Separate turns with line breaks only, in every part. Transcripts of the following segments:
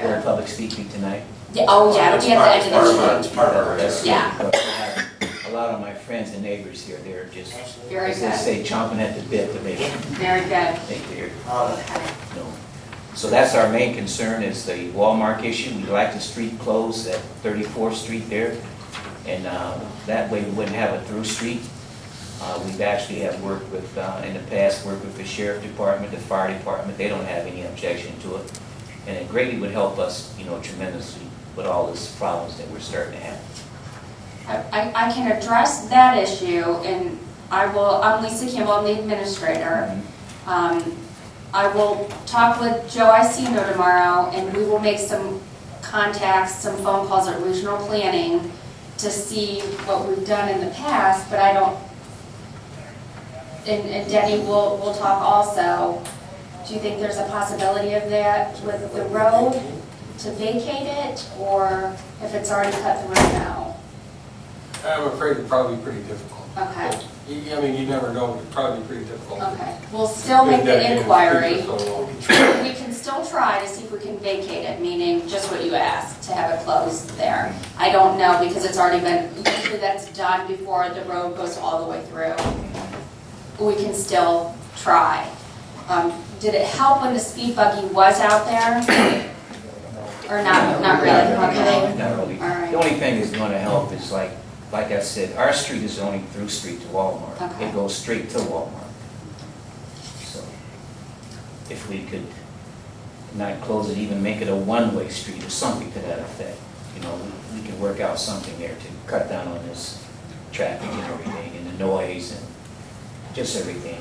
during public speaking tonight.
Yeah, oh, yeah, it'll be at the end
Part of
of the
our-
meeting.
It's part of our
That's-
regs.
Yeah.
but I have A lot of my friends and neighbors here, they're just,
Very
as they
good,
say, chomping at the bit to make,
very good.
make their,
Uh,
Okay.
you know. So that's our main concern is the Walmart issue. We'd like the street closed at 34th Street there. And uh, that way we wouldn't have a through street. Uh, We've actually have worked with, uh, in the past, worked with the sheriff department, the fire department. They don't have any objection to it. And it greatly would help us, you know, tremendously with all these problems that we're starting to have.
I, I I can address that issue, and I will, I'm Lisa Campbell, I'm the administrator. Um, I will talk with Joe Iacino tomorrow, and we will make some contacts, some phone calls at regional planning to see what we've done in the past, but I don't, and and Denny will, will talk also. Do you think there's a possibility of that with the road, to vacate it, or if it's already cut through now?
I'm afraid it'd probably be pretty difficult.
Okay,
You- I mean, you never know, it'd probably be pretty difficult.
okay. We'll still make
Been dedicated
the
to
inquiry.
people so long.
We can still try to see if we can vacate it, meaning just what you asked, to have it closed there. I don't know because it's already been, usually that's done before the road goes all the way through. We can still try. Um, Did it help when the speed buggy was out there? Or not, not really, okay?
Not really.
All right.
The only thing that's gonna help is like, like I said, our street is the only through street to Walmart.
Okay.
It goes straight to Walmart. So if we could not close it, even make it a one-way street or something to that effect, you know, we- we can work out something there to cut down on this traffic and everything and the noise and just everything.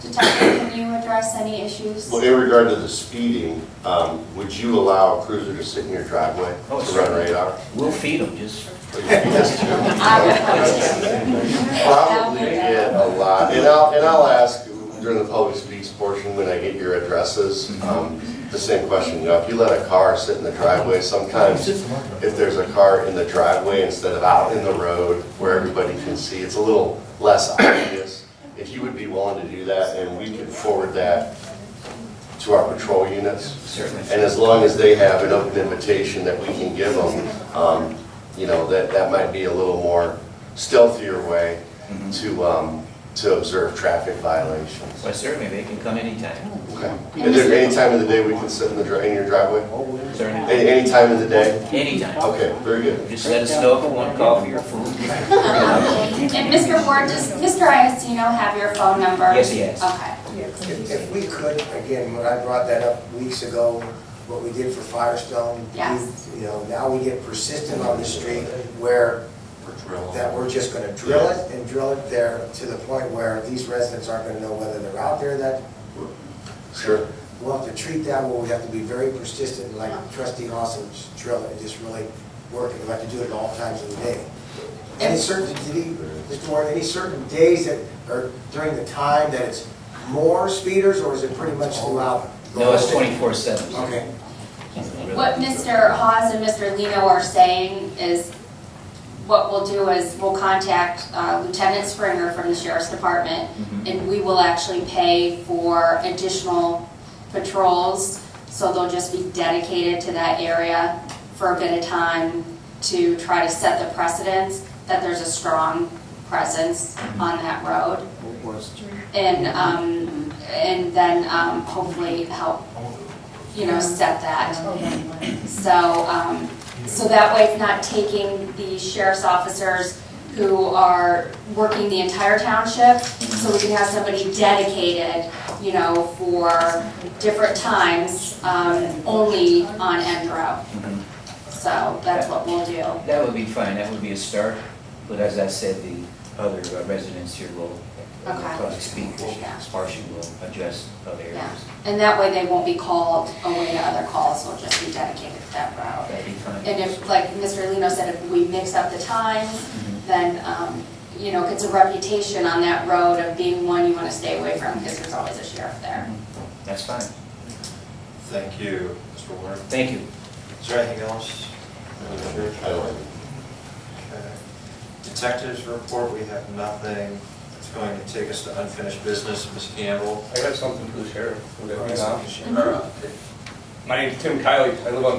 Detective, can you address any issues?
Well, in regard to the speeding, um, would you allow a cruiser to sit in your driveway to
Oh,
run
certainly.
radar?
We'll feed them, just,
I would hope to.
Probably get a lot, and I'll, and I'll ask during the public speaks portion when I get your addresses, um, the same question, you know, if you let a car sit in the driveway, sometimes if there's a car in the driveway instead of out in the road where everybody can see, it's a little less obvious. If you would be willing to do that, and we can forward that to our patrol units,
certainly.
and as long as they have an open invitation that we can give them, um, you know, that, that might be a little more stealthier way to, um, to observe traffic violations.
Mm-hmm. Well, certainly, they can come anytime,
Okay. Is there any time of the day we can sit in the, dri- in your driveway?
certainly,
Any, any time of the day?
anytime.
Okay, very good.
Just let us know if you want coffee or food.
And Mr. Ward, does Mr. Iacino have your phone number?
Yes, he has.
Okay,
If if we could, again, when I brought that up weeks ago, what we did for Firestone.
Yes.
You know, now we get persistent on the street where, that we're just gonna drill it and drill it there to the point where these residents aren't gonna know whether they're out there that.
Sure.
We'll have to treat that, where we have to be very persistent, like trustee Austin, just drill it and just really work it. We have to do it at all times of the day. Any certain, did he- Mr. Warren, any certain days that, or during the time that it's more speeders, or is it pretty much throughout? the
No, it's
whole day?
twenty-four seven.
Okay,
what Mr. Hawes and Mr. Lino are saying is, what we'll do is, we'll contact uh, Lieutenant Springer from the Sheriff's Department,
Mm-hmm.
and we will actually pay for additional patrols, so they'll just be dedicated to that area for a bit of time to try to set the precedence that there's a strong presence on that road. And, um, and then, um, hopefully help, you know, set that. So, um, so that way it's not taking the sheriff's officers who are working the entire township, so we can have somebody dedicated, you know, for different times, um, only on end route.
Mhm.
So that's what we'll do.
That would be fine, that would be a start, but as I said, the other uh, residents here will will
Okay.
probably speak, will,
Yeah.
Sparsh will address other
Yeah,
areas.
and that way they won't be called away to other calls, they'll just be dedicated to that route.
That'd be fine.
And if, like Mr. Lino said, if we mix up the times,
Mhm.
then, um, you know, it's a reputation on that road of being one you want to stay away from because there's always a sheriff there.
That's fine,
Thank you, Mr. Warren.
thank you.
Is there anything else?
I like it.
Okay. Detectives report, we have nothing. It's going to take us to unfinished business. Ms. Campbell?
I got something for the sheriff. Would that be enough?
All right.
My name's Tim Kiley. I live on